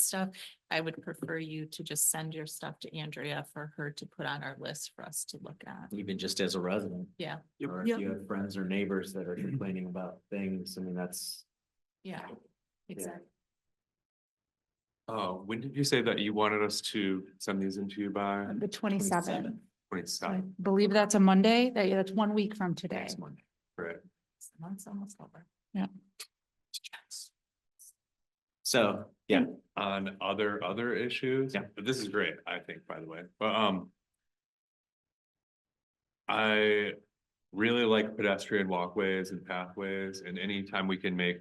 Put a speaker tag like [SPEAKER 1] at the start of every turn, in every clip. [SPEAKER 1] stuff, I would prefer you to just send your stuff to Andrea for her to put on our list for us to look at.
[SPEAKER 2] even just as a resident.
[SPEAKER 1] Yeah.
[SPEAKER 3] Yep.
[SPEAKER 2] Or if you have friends or neighbors that are complaining about things, I mean, that's,
[SPEAKER 1] Yeah. Exactly.
[SPEAKER 3] Oh, when did you say that you wanted us to send these into you by
[SPEAKER 4] The twenty-seventh. I
[SPEAKER 3] twenty-seven?
[SPEAKER 4] believe that's a Monday. That, yeah, that's one week from today.
[SPEAKER 3] Next Monday, right?
[SPEAKER 1] The month's almost over.
[SPEAKER 2] so, yeah,
[SPEAKER 3] On other, other issues?
[SPEAKER 2] Yeah.
[SPEAKER 3] But this is great, I think, by the way, but, um. I really like pedestrian walkways and pathways and anytime we can make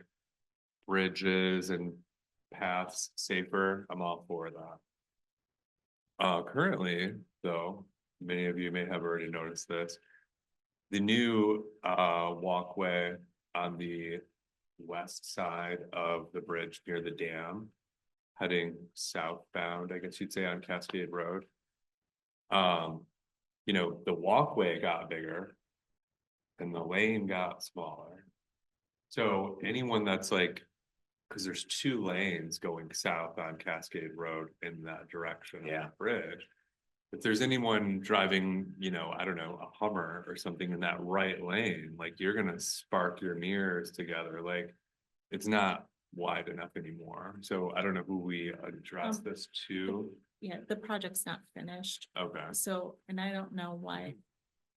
[SPEAKER 3] bridges and paths safer, I'm all for that. Uh, currently, though, many of you may have already noticed this. The new, uh, walkway on the west side of the bridge near the dam. Heading southbound, I guess you'd say on Cascade Road. Um, you know, the walkway got bigger. And the lane got smaller. So anyone that's like, cause there's two lanes going south on Cascade Road in that direction. of the
[SPEAKER 2] Yeah.
[SPEAKER 3] Bridge. If there's anyone driving, you know, I don't know, a Hummer or something in that right lane, like you're gonna spark your mirrors together, like. It's not wide enough anymore, so I don't know who we address
[SPEAKER 1] Um,
[SPEAKER 3] this to,
[SPEAKER 1] Yeah, the project's not finished,
[SPEAKER 3] okay.
[SPEAKER 1] so, and I don't know why.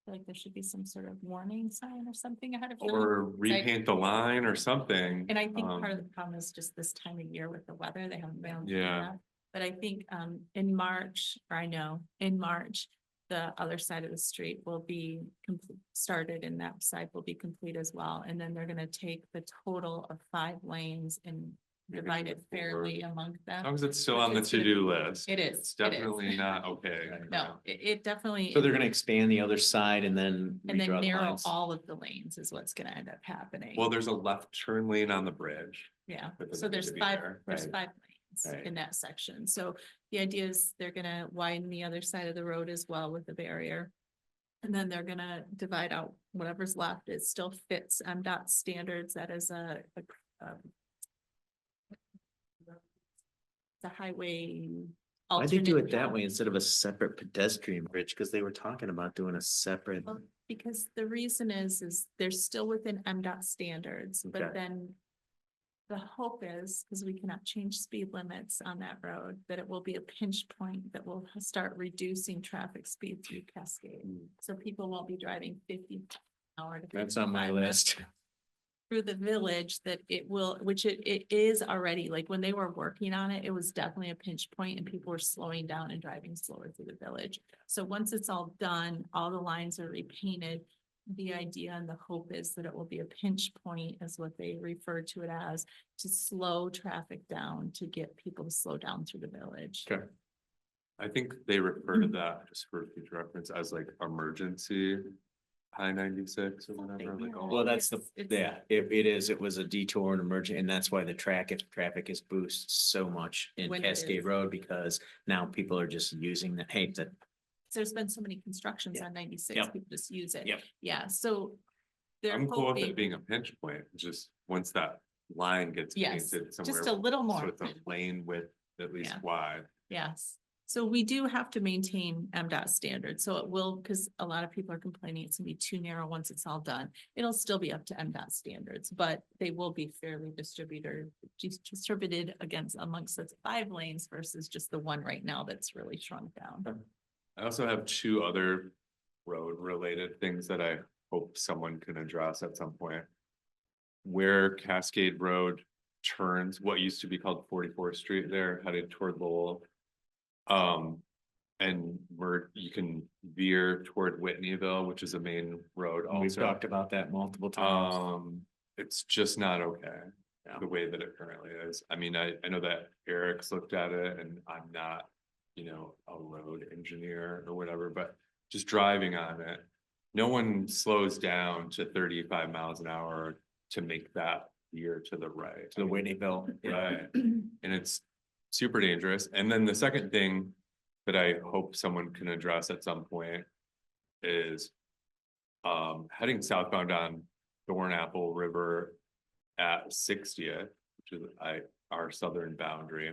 [SPEAKER 1] Like there should be some sort of warning sign or something ahead of time.
[SPEAKER 3] Or repaint the line or something.
[SPEAKER 1] And I think
[SPEAKER 3] um,
[SPEAKER 1] part of the problem is just this time of year with the weather, they haven't been. able to do
[SPEAKER 3] Yeah.
[SPEAKER 1] that. But I think um in March, or I know, in March, the other side of the street will be complete, started and that side will be complete as well. And then they're gonna take the total of five lanes and
[SPEAKER 3] maybe
[SPEAKER 1] divide it
[SPEAKER 3] four.
[SPEAKER 1] fairly among
[SPEAKER 3] As
[SPEAKER 1] them.
[SPEAKER 3] long as it's still on the
[SPEAKER 1] It's gonna-
[SPEAKER 3] to-do list.
[SPEAKER 1] It is.
[SPEAKER 3] It's
[SPEAKER 1] it is.
[SPEAKER 3] definitely not okay.
[SPEAKER 1] No, it it definitely.
[SPEAKER 2] so they're gonna expand the other side and then.
[SPEAKER 1] And then
[SPEAKER 2] redraw the
[SPEAKER 1] narrow
[SPEAKER 2] lines.
[SPEAKER 1] all of the lanes is what's gonna end up happening.
[SPEAKER 3] Well, there's a left turn lane on the bridge.
[SPEAKER 1] Yeah,
[SPEAKER 3] But
[SPEAKER 1] so
[SPEAKER 3] doesn't need
[SPEAKER 1] there's
[SPEAKER 3] to be
[SPEAKER 1] five,
[SPEAKER 3] there,
[SPEAKER 1] there's
[SPEAKER 2] right.
[SPEAKER 1] five lanes
[SPEAKER 2] Right.
[SPEAKER 1] in that section. So the idea is they're gonna widen the other side of the road as well with the barrier. And then they're gonna divide out whatever's left. It still fits MDOT standards. That is a, a, um, the highway.
[SPEAKER 2] Why'd they do
[SPEAKER 1] alternate-
[SPEAKER 2] it that way instead of a separate pedestrian bridge? Cause they were talking about doing a separate,
[SPEAKER 1] Well, Because the reason is, is they're still within MDOT standards, but
[SPEAKER 2] Okay.
[SPEAKER 1] then the hope is, because we cannot change speed limits on that road, that it will be a pinch point that will start reducing traffic speed through Cascade.
[SPEAKER 2] Mm.
[SPEAKER 1] So people won't be driving fifty hour. to
[SPEAKER 2] that's on my
[SPEAKER 1] 55 miles
[SPEAKER 2] list.
[SPEAKER 1] through the village that it will, which it, it is already, like when they were working on it, it was definitely a pinch point and people were slowing down and driving slower through the village. So once it's all done, all the lines are repainted. The idea and the hope is that it will be a pinch point is what they refer to it as, to slow traffic down, to get people to slow down through the village.
[SPEAKER 3] Okay. I think they refer
[SPEAKER 1] Mm-hmm.
[SPEAKER 3] to that, just for future reference, as like emergency high ninety-six or whatever, like oh, all.
[SPEAKER 2] Well, that's the,
[SPEAKER 1] It's- it's-
[SPEAKER 2] yeah, if it is, it was a detour and emergent, and that's why the track, if traffic is boosted so much in
[SPEAKER 1] When it
[SPEAKER 2] Cascade
[SPEAKER 1] is.
[SPEAKER 2] Road, because now people are just using the, hey, that
[SPEAKER 1] There's been so many constructions
[SPEAKER 2] Yeah.
[SPEAKER 1] on ninety-six,
[SPEAKER 2] Yep.
[SPEAKER 1] people just use it.
[SPEAKER 2] Yep.
[SPEAKER 1] Yeah, so. they're
[SPEAKER 3] I'm cool with
[SPEAKER 1] hoping-
[SPEAKER 3] it being a pinch point, just once that line gets
[SPEAKER 1] Yes,
[SPEAKER 3] painted somewhere.
[SPEAKER 1] just a little
[SPEAKER 3] So
[SPEAKER 1] more.
[SPEAKER 3] it's a lane width at least
[SPEAKER 1] Yeah.
[SPEAKER 3] wide.
[SPEAKER 1] Yes, so we do have to maintain MDOT standards, so it will, because a lot of people are complaining it's gonna be too narrow once it's all done. It'll still be up to MDOT standards, but they will be fairly distributed, distributed against amongst the five lanes versus just the one right now that's really shrunk down.
[SPEAKER 3] I also have two other road related things that I hope someone can address at some point. Where Cascade Road turns, what used to be called Forty Fourth Street there headed toward Lowell. Um, and where you can veer toward Whitneyville, which is a main road also.
[SPEAKER 2] we've talked about that multiple times.
[SPEAKER 3] Um, it's just not okay,
[SPEAKER 2] Yeah.
[SPEAKER 3] the way that it currently is. I mean, I, I know that Eric's looked at it and I'm not, you know, a road engineer or whatever, but just driving on it. No one slows down to thirty-five miles an hour to make that veer to the right.
[SPEAKER 2] The Whitneyville. yeah.
[SPEAKER 3] Right, and it's super dangerous. And then the second thing that I hope someone can address at some point is um, heading southbound on Thornapple River at sixtieth, which is I, our southern boundary.